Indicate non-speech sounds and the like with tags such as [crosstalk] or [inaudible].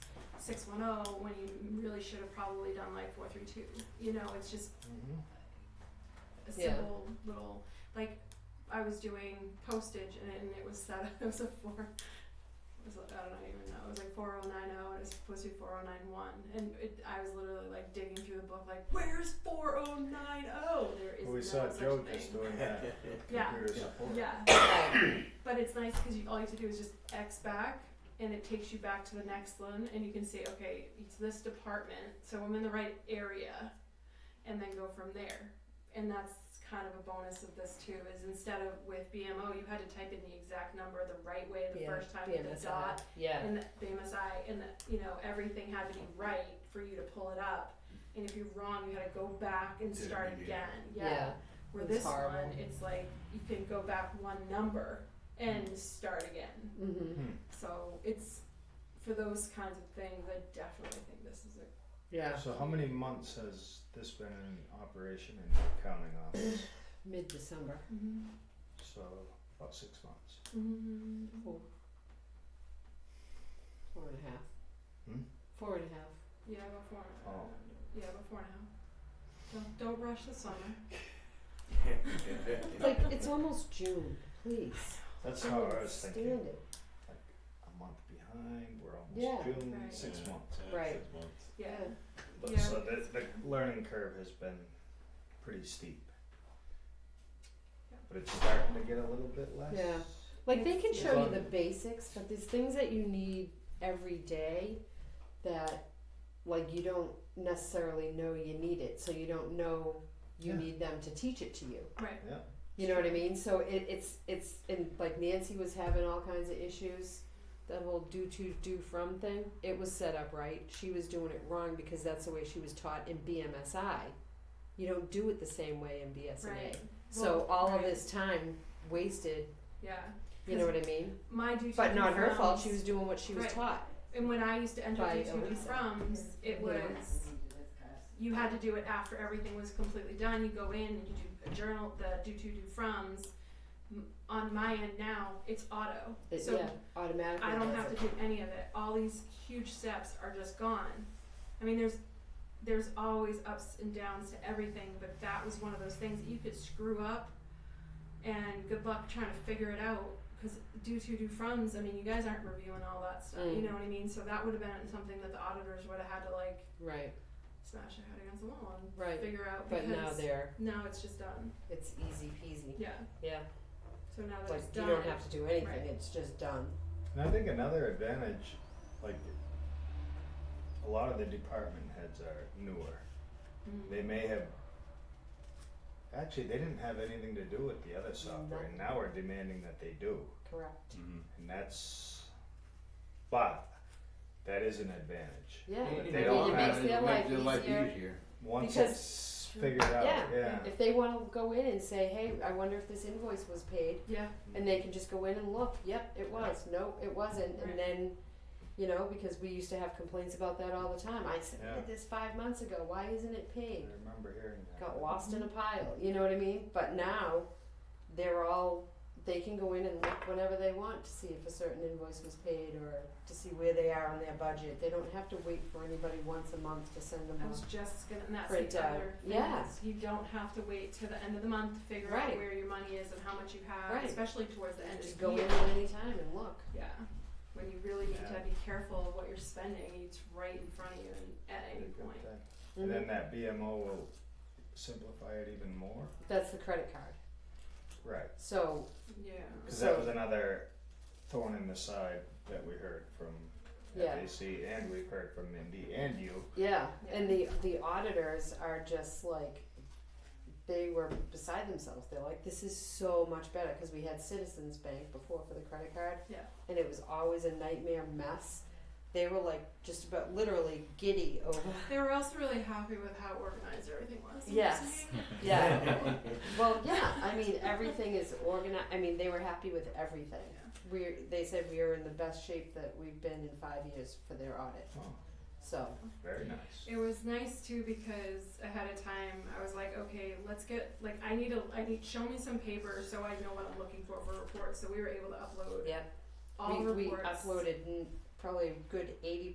six one oh when you really should have probably done like four three two. You know, it's just Mm-hmm. a Yeah. simple little like I was doing postage and it, and it was set [laughs] it was a four it was like, I don't even know it was like four oh nine oh and it was supposed to be four oh nine one and it, I was literally like digging through the book like where's four oh nine oh there is Well, we no saw such Joe thing. just [laughs] doing that. Yeah. Computer Yeah. support. yeah but it's nice because you, all you have to do is just X back and it takes you back to the next one and you can say okay it's this department so I'm in the right area and then go from there and that's kind of a bonus of this too is instead of with BMO you had to type in the exact number the right way the Yeah, first time with the BMSI. dot Yeah. and the BMSI and the, you know everything had to be right for you to pull it up and if you're wrong you had to go back and Did it start again. again yeah. Yeah. Where It's this horrible. one, it's like you can go back one number and start again. Mm-hmm. Hmm. So it's for those kinds of things. I definitely think this is a Yeah. So how many months has this been in operation in the accounting office? Mid December. So about six months. Mm-hmm. Four. Four and a half. Hmm? Four and a half. yeah, about four. And a half. Oh. Yeah, about four and a half. Don't, don't rush the summer. It's like it's almost June. Please. That's Can't how I was stand thinking. it. A month behind, we're Yeah. almost June, Right. six months. Right. Six months. Yeah. Yeah. But Yeah. so the the learning curve has been pretty steep. Yeah. But it's starting to get a little bit less. Yeah. Like they can It's- show you the Yeah. basics, but there's things that you need every day that like you don't necessarily know you need it, so you don't know you Yeah. need them to teach it to you. Right. Yeah. You know what I mean? So it, it's it's and like Nancy was having all kinds of issues. That whole do to do from thing, it was set up right. She was doing it wrong because that's the way she was taught in BMSI. You don't do it the same way in BSNA. Right. So Well, all of right. this time wasted. Yeah. You know what I mean? My due to But the not her fault. frowns- She was doing what she was Right. taught. And when I used to enter By due to the Elisa. froms, it was. you had to do it after everything was completely done. You go in and you do a journal, the do to do froms. M- On my end now, it's auto. It, so yeah, automatically. I don't does have to it. do any of it. All these huge steps are just gone. I mean, there's there's always ups and downs to everything, but that was one of those things that you could screw up, and good luck trying to figure it out. Because do to do froms, I mean, you guys aren't reviewing all that stuff. You Mm. know what I mean? So that would have been something that the auditors would have had to like Right, smash their head against the wall and right. figure out. But now because there, now it's just done. it's easy peasy. Yeah. Yeah, So now that like it's you done. don't have to do anything. Right. It's just done. And I think another advantage, like a lot of the department heads are newer. Mm. They may have actually they didn't have anything to do with the other software, and now we're demanding that they do, Correct. and that's. But that is an advantage Yeah. But It they don't makes have- their it life makes their life easier. easier. once Because- it's figured out. yeah. Yeah. If they want to go in and say, "Hey, I wonder if this invoice was paid," Yeah. and they can just go in and look. Yep, it was. No, it wasn't. Right. And then, you know, because we used to have complaints about that all the time. I submitted Yeah. this five months ago. Why isn't it paid? I remember hearing that. got lost in a pile. You know what I mean? But now they're all they can go in and look whenever they want to see if a certain invoice was paid or to see where they are on their budget. They don't have to wait for anybody once a month to send them I a was just gonna, and that's Print the out. other thing Yeah. is You don't have to wait till the end of the month to figure Right. out where your money is and how much you have, Right. especially towards the end of just the go year. in at any time and look. Yeah. When you really need Yeah. to be careful of what you're spending, it's right in front of you and at Pretty any good point. thing. And Mm-hmm. then that BMO will simplify it even more. That's the credit card. Right. So Yeah. Because that So- was another thorn in the side that we heard from Yeah. FAC and we've heard from Mindy and you. yeah, and the the auditors are just like they were beside themselves. They're like, this is so much better because we had Citizens Bank before for the credit card. Yeah. and it was always a nightmare mess. They were like just about literally giddy over. [laughs] They were also really happy with how organized everything was. I'm Yes. saying. Yeah. [laughs] well, yeah. I mean, everything is organized. I mean, they were happy with everything. We they said we are in the best shape that we've been in five years for their audit. Oh, So very nice. It was nice too because ahead of time I was like, okay, let's get like I need a I need show me some paper so I know what I'm looking for for reports. So we were able to upload yeah, all we, the we reports. uploaded mm, probably a good eighty